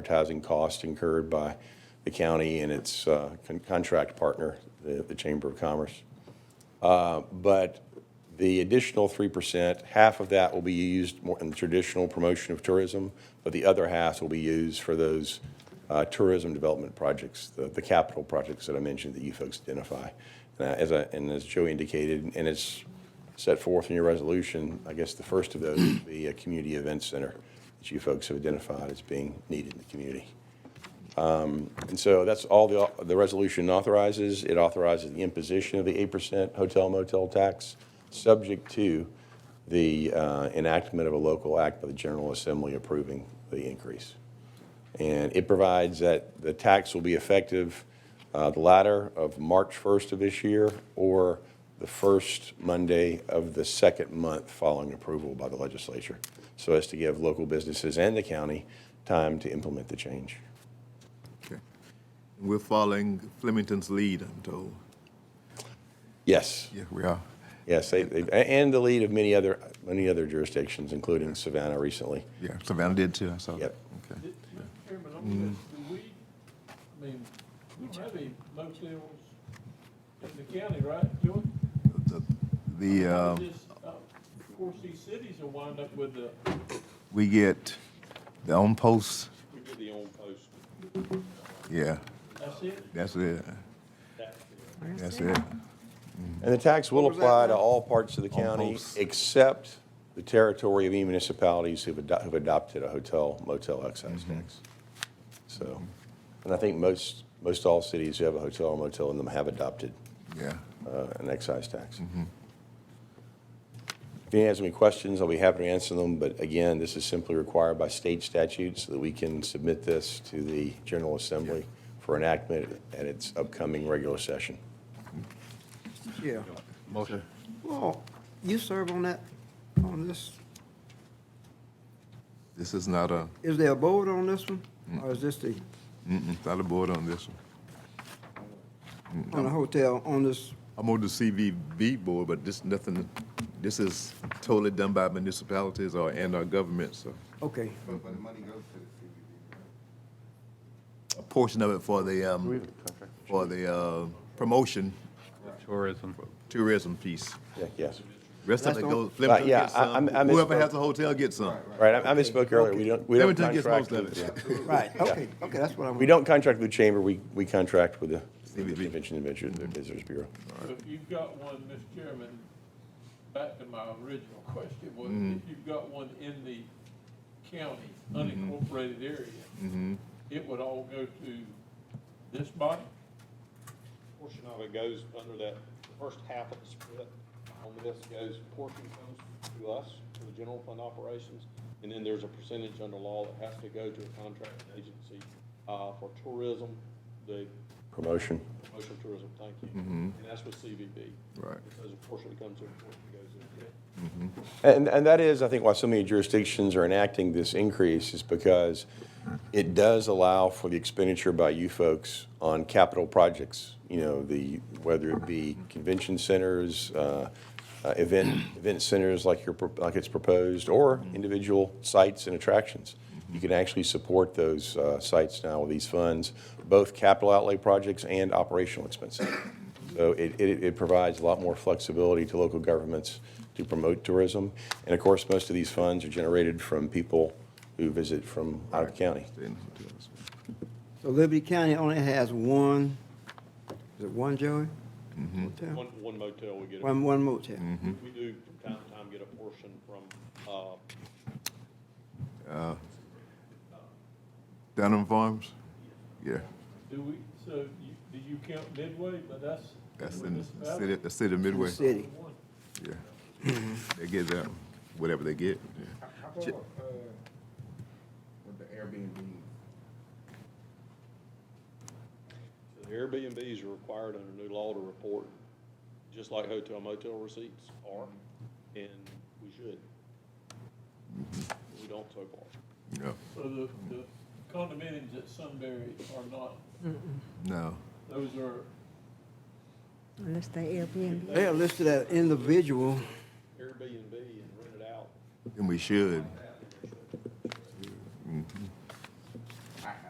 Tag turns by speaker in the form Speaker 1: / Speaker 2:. Speaker 1: advertising costs incurred by the county and its uh, con- contract partner, the the Chamber of Commerce. Uh, But the additional 3%, half of that will be used more in traditional promotion of tourism, but the other half will be used for those uh, tourism development projects, the the capital projects that I mentioned that you folks identify. And I- as I, and as Joey indicated, and it's set forth in your resolution, I guess the first of those would be a community event center that you folks have identified as being needed in the community. And so that's all the, the resolution authorizes. It authorizes the imposition of the 8% hotel motel tax, subject to the uh, enactment of a local act by the General Assembly approving the increase. And it provides that the tax will be effective uh, the latter of March 1st of this year or the first Monday of the second month following approval by the legislature, so as to give local businesses and the county time to implement the change.
Speaker 2: Okay. We're following Flemington's lead, I'm told.
Speaker 1: Yes.
Speaker 2: Yeah, we are.
Speaker 1: Yes, they, they, a- and the lead of many other, many other jurisdictions, including Savannah recently.
Speaker 2: Yeah, Savannah did too, I saw that.
Speaker 1: Yep.
Speaker 2: Okay.
Speaker 3: Chairman, on
Speaker 2: Mm.
Speaker 3: this, do we, I mean, we don't have any motels in the county, right, Joey?
Speaker 2: The- The,
Speaker 3: How
Speaker 2: uh,
Speaker 3: does this, uh, Of course, these cities will wind up with the,
Speaker 2: we get the on post,
Speaker 4: We did the on post.
Speaker 2: yeah,
Speaker 3: that's it,
Speaker 2: that's it, that's it.
Speaker 1: And the tax will apply to all parts of the county
Speaker 2: Almost.
Speaker 1: except the territory of any municipalities who've ado- who've adopted a hotel motel excise tax. So, and I think most, most all cities who have a hotel or motel in them have adopted
Speaker 2: Yeah,
Speaker 1: uh, an excise tax. If anyone has any questions, I'll be happy to answer them, but again, this is simply required by state statute so that we can submit this to the General Assembly for enactment at its upcoming regular session.
Speaker 5: Yeah.
Speaker 2: Motion.
Speaker 5: Well, you serve on that, on this,
Speaker 2: this is not a,
Speaker 5: is there a board on this one? Or is this the,
Speaker 2: mm-mm, not a board on this one.
Speaker 5: on the hotel, on this,
Speaker 2: I'm on the CVB board, but this nothing, this is totally done by municipalities or, and our government, so.
Speaker 5: okay.
Speaker 2: A portion of it for the, um, for the, uh, promotion,
Speaker 4: Tourism.
Speaker 2: tourism piece.
Speaker 1: Yeah, Yes.
Speaker 2: Rest of
Speaker 5: That's
Speaker 2: it
Speaker 5: the-
Speaker 2: goes,
Speaker 1: Right,
Speaker 2: Flemington
Speaker 1: yeah,
Speaker 2: gets
Speaker 1: I- I'm-
Speaker 2: some,
Speaker 1: I
Speaker 2: whoever
Speaker 1: misspoke.
Speaker 2: has a hotel gets some.
Speaker 1: Right, I I misspoke earlier. We don't, we don't
Speaker 2: Flemington gets
Speaker 1: contract.
Speaker 2: most of
Speaker 1: with-
Speaker 2: it.
Speaker 5: Right, okay, okay, that's what I want.
Speaker 1: We don't contract with the chamber, we, we contract with the with the
Speaker 2: CVB.
Speaker 1: Convention and Visitors Visitors Bureau.
Speaker 3: but you've got one, Mr. Chairman, back to my original question, was
Speaker 2: Mm.
Speaker 3: if you've got one in the county,
Speaker 2: Mm-hmm.
Speaker 3: unincorporated area, it would all go to this body?
Speaker 4: Portion of it goes under that first half of the split. On this goes, portion comes to us, to the general fund operations. And then there's a percentage under law that has to go to a contracting agency, uh, for tourism, the
Speaker 1: Promotion.
Speaker 4: promotion of tourism, thank you. And that's with CVB.
Speaker 2: Right.
Speaker 4: There's a portion that comes in, a portion that goes in.
Speaker 1: And, and that is, I think, why so many jurisdictions are enacting this increase is because it does allow for the expenditure by you folks on capital projects. You know, the, whether it be convention centers, uh, uh, event, event centers like your, pro- like it's proposed, or individual sites and attractions. You can actually support those uh, sites now with these funds, both capital outlay projects and operational expenses. So it, it, it provides a lot more flexibility to local governments to promote tourism. And of course, most of these funds are generated from people who visit from out of county.
Speaker 5: So Liberty County only has one, is it one, Joey? Hotel?
Speaker 4: One, one motel, we get, a-
Speaker 5: One, one motel.
Speaker 4: we do from time to time get a portion from, uh,
Speaker 2: Uh, Dunham Farms? Yeah,
Speaker 3: Do we, so you, do you count Midway, but that's.
Speaker 2: that's
Speaker 3: with
Speaker 2: in
Speaker 3: this
Speaker 2: the
Speaker 3: battle?
Speaker 2: city, the city of Midway.
Speaker 5: City.
Speaker 3: One.
Speaker 2: Yeah. They get that, whatever they get. yeah.
Speaker 6: How about, uh, with the Airbnb?
Speaker 4: The Airbnbs are required under new law to report, just like hotel motel receipts are, and we should. We don't so far.
Speaker 2: No,
Speaker 3: So the, the condominiums at Sunbury are not,
Speaker 2: no.
Speaker 3: those are,
Speaker 7: Unless they Airbnb.
Speaker 5: They are listed as individual.
Speaker 4: Airbnb and rent it out.
Speaker 2: And we should.